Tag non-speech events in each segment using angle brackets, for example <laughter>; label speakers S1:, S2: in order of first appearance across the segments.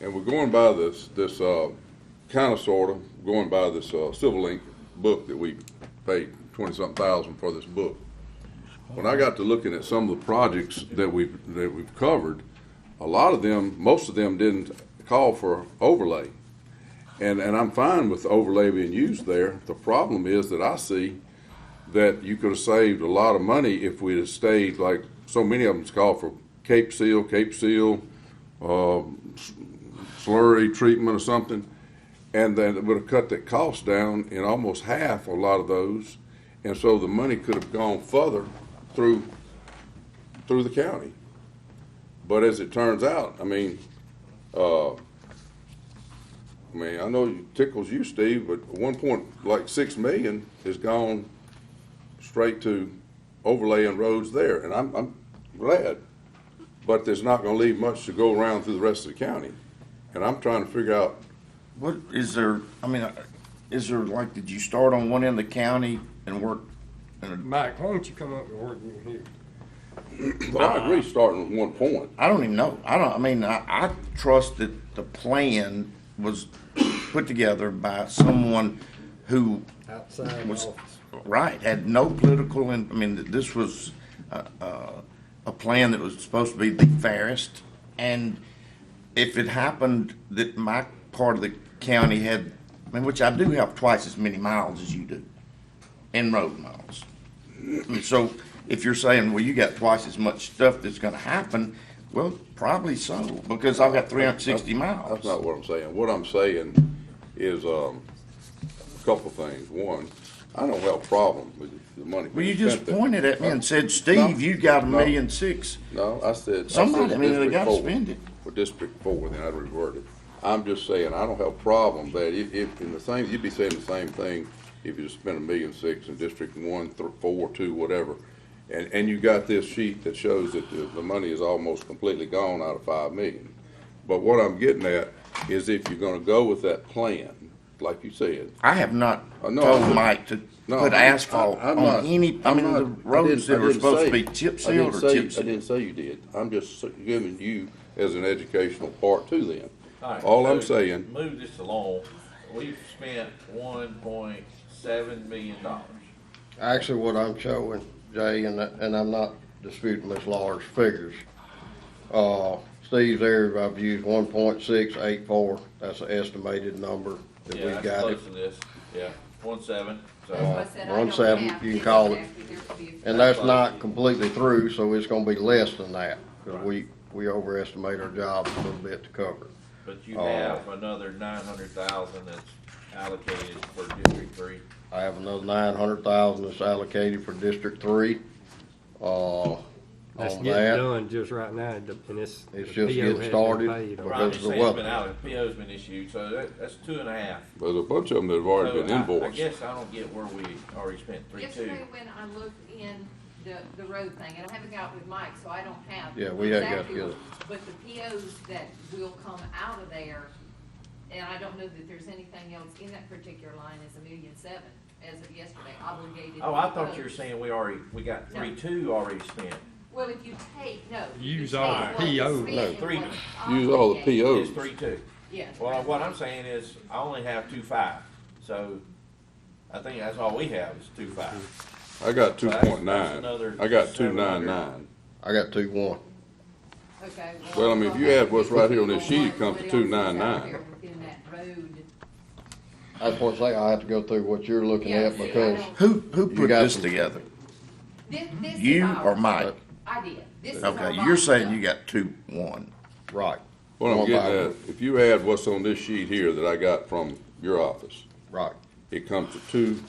S1: And we're going by this, this, uh, kinda sorta, going by this, uh, Civil Link book that we paid twenty-something thousand for this book. When I got to looking at some of the projects that we've, that we've covered, a lot of them, most of them didn't call for overlay. And, and I'm fine with overlay being used there. The problem is that I see that you could have saved a lot of money if we'd have stayed, like, so many of them's called for Cape Seal, Cape Seal, slurry treatment or something, and then it would have cut that cost down in almost half a lot of those. And so the money could have gone further through, through the county. But as it turns out, I mean, uh, I mean, I know it tickles you, Steve, but one point, like six million has gone straight to overlaying roads there, and I'm, I'm glad. But there's not gonna leave much to go around through the rest of the county. And I'm trying to figure out, <clears throat>
S2: What, is there, I mean, uh, is there, like, did you start on one end of the county and work? in
S3: Mike, why don't you come up and work with me here?
S1: but I agree starting with one point.
S2: a- I don't even know. I don't, I mean, I, I trust that the plan was put together by someone who,
S3: Outside the
S2: What's-
S3: office.
S2: right, had no political, and, I mean, that this was, uh, uh, a plan that was supposed to be the fairest. And if it happened that my part of the county had, I mean, which I do have twice as many miles as you do, in road miles. And so if you're saying, well, you got twice as much stuff that's gonna happen, well, probably so, because I've got three hundred and sixty
S1: That's not
S2: miles.
S1: what I'm saying. What I'm saying is, um, a couple things. One, I don't have a problem with the money.
S2: Well, you
S1: being
S2: just
S1: spent there.
S2: pointed at me and said,
S1: No,
S2: Steve, you got a
S1: no,
S2: million six.
S1: No, I said. I said
S2: Somebody, I mean, they
S1: District
S2: gotta
S1: four.
S2: spend it.
S1: Well, District Four, then I'd revert it. I'm just saying, I don't have a problem that if, if, in the same, you'd be saying the same thing if you spent a million six in District One, th- four, two, whatever. And, and you got this sheet that shows that the, the money is almost completely gone out of five million. But what I'm getting at is if you're gonna go with that plan, like you said,
S2: I have not
S1: Uh, no,
S2: told
S1: I'm-
S2: Mike to
S1: no,
S2: put
S1: I-
S2: asphalt
S1: I- I'm
S2: on
S1: not-
S2: any, I
S1: I'm
S2: mean,
S1: not-
S2: the
S1: I
S2: roads
S1: didn't- I
S2: that are
S1: didn't
S2: supposed to
S1: say-
S2: be chip
S1: I didn't
S2: sealed
S1: say-
S2: or chip
S1: I
S2: sealed.
S1: didn't say you did. I'm just s- giving you as an educational part to them.
S4: All right,
S1: All I'm
S4: so
S1: saying,
S4: Move this along. We've spent one point seven million dollars.
S5: Actually, what I'm showing, Jay, and, and I'm not disputing Ms. Lawler's figures. Uh, Steve's area, I've used one point six eight four, that's an estimated number that
S4: Yeah,
S5: we
S4: that's
S5: got it.
S4: close to this. Yeah, one seven,
S5: Uh,
S4: so.
S6: That's what I said, I
S5: one
S6: don't
S5: seven,
S6: have
S5: you can
S6: it.
S5: call it.
S6: There could be a-
S5: And that's not completely through, so it's gonna be less than that, cause we, we overestimate our jobs a little bit to cover.
S4: But you
S5: Oh.
S4: have another nine hundred thousand that's allocated for District Three.
S5: I have another nine hundred thousand that's allocated for District Three, uh, on
S3: That's getting
S5: that.
S3: done just right now, and the- and it's.
S5: It's
S3: the
S5: just
S3: PO
S5: getting
S3: hasn't been
S5: started.
S3: paid on it.
S5: Right.
S4: Ronnie's
S5: Because of the
S4: saying it's
S5: weather.
S4: been out, PO's been issued, so that, that's two and a half.
S1: there's a bunch of them that have already
S4: So
S1: been
S4: I- I
S1: invoiced.
S4: guess I don't get where we already spent three two.
S6: Yesterday when I looked in the, the road thing, and I haven't got with Mike, so I don't have.
S5: Yeah, we hadn't got
S6: exactly
S5: together.
S6: what- But the POs that will come out of there, and I don't know that there's anything else in that particular line is a million seven as of yesterday obligated.
S4: Oh, I thought you were
S6: roads.
S4: saying we already, we got
S6: No.
S4: three two already spent.
S6: Well, if you take, no. if you
S3: Use all the
S6: take what was
S3: POs.
S6: spent
S4: No,
S6: and
S4: three.
S6: what's
S1: Use all the
S6: obligated.
S1: POs.
S4: It's three two.
S6: Yeah.
S4: Well, what I'm saying is, I only have two five, so I think that's all we have is two five.
S1: I got two
S4: So that's-
S1: point
S4: that's
S1: nine.
S4: another
S1: I got two nine
S4: 700.
S1: nine.
S5: I got two one.
S6: Okay.
S1: Well, I mean, if you add what's right here on this sheet, it comes to
S6: What else is out
S1: 299.
S6: there Within that road.
S5: That's what I say, I have to go through what you're looking
S6: Yeah,
S5: at
S6: see, I
S5: because
S6: don't-
S2: Who, who
S5: You
S2: put
S5: got
S2: this
S5: some-
S2: together?
S6: This, this is
S2: You
S6: ours.
S2: or Mike?
S6: I did. This is our
S2: Okay, you're
S6: box
S2: saying
S6: stuff.
S2: you got two, one.
S5: Right.
S1: What I'm
S5: One
S1: getting
S5: by
S1: at,
S5: one.
S1: if you add what's on this sheet here that I got from your office,
S5: Right.
S1: it comes to two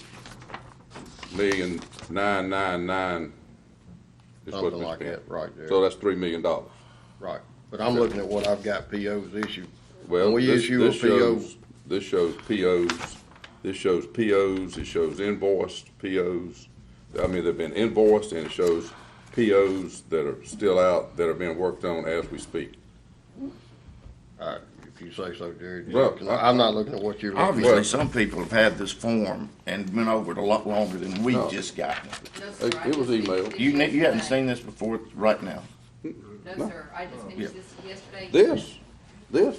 S1: million nine nine nine. is what
S5: Something
S1: we
S5: like
S1: spent.
S5: that, right there.
S1: So that's three million dollars.
S5: Right. But I'm looking at what I've got POs issued.
S1: Well,
S5: We
S1: this,
S5: issue a
S1: this
S5: PO.
S1: shows, this shows POs, this shows POs, it shows invoiced POs. I mean, they've been invoiced and it shows POs that are still out, that are being worked on as we speak.
S5: All right, uh, if you say so, Jared.
S1: Well, I-
S5: I'm not looking at what you're looking at.
S2: Obviously, some people have had this form and been over it a lot longer than we
S1: No.
S2: just got. it.
S6: No, sir,
S1: It-
S6: I
S1: it was
S6: just finished
S1: emailed.
S6: this
S2: You, ne- you haven't
S6: yesterday.
S2: seen this before, right now.
S6: No, sir, I just finished this yesterday.
S1: This, this,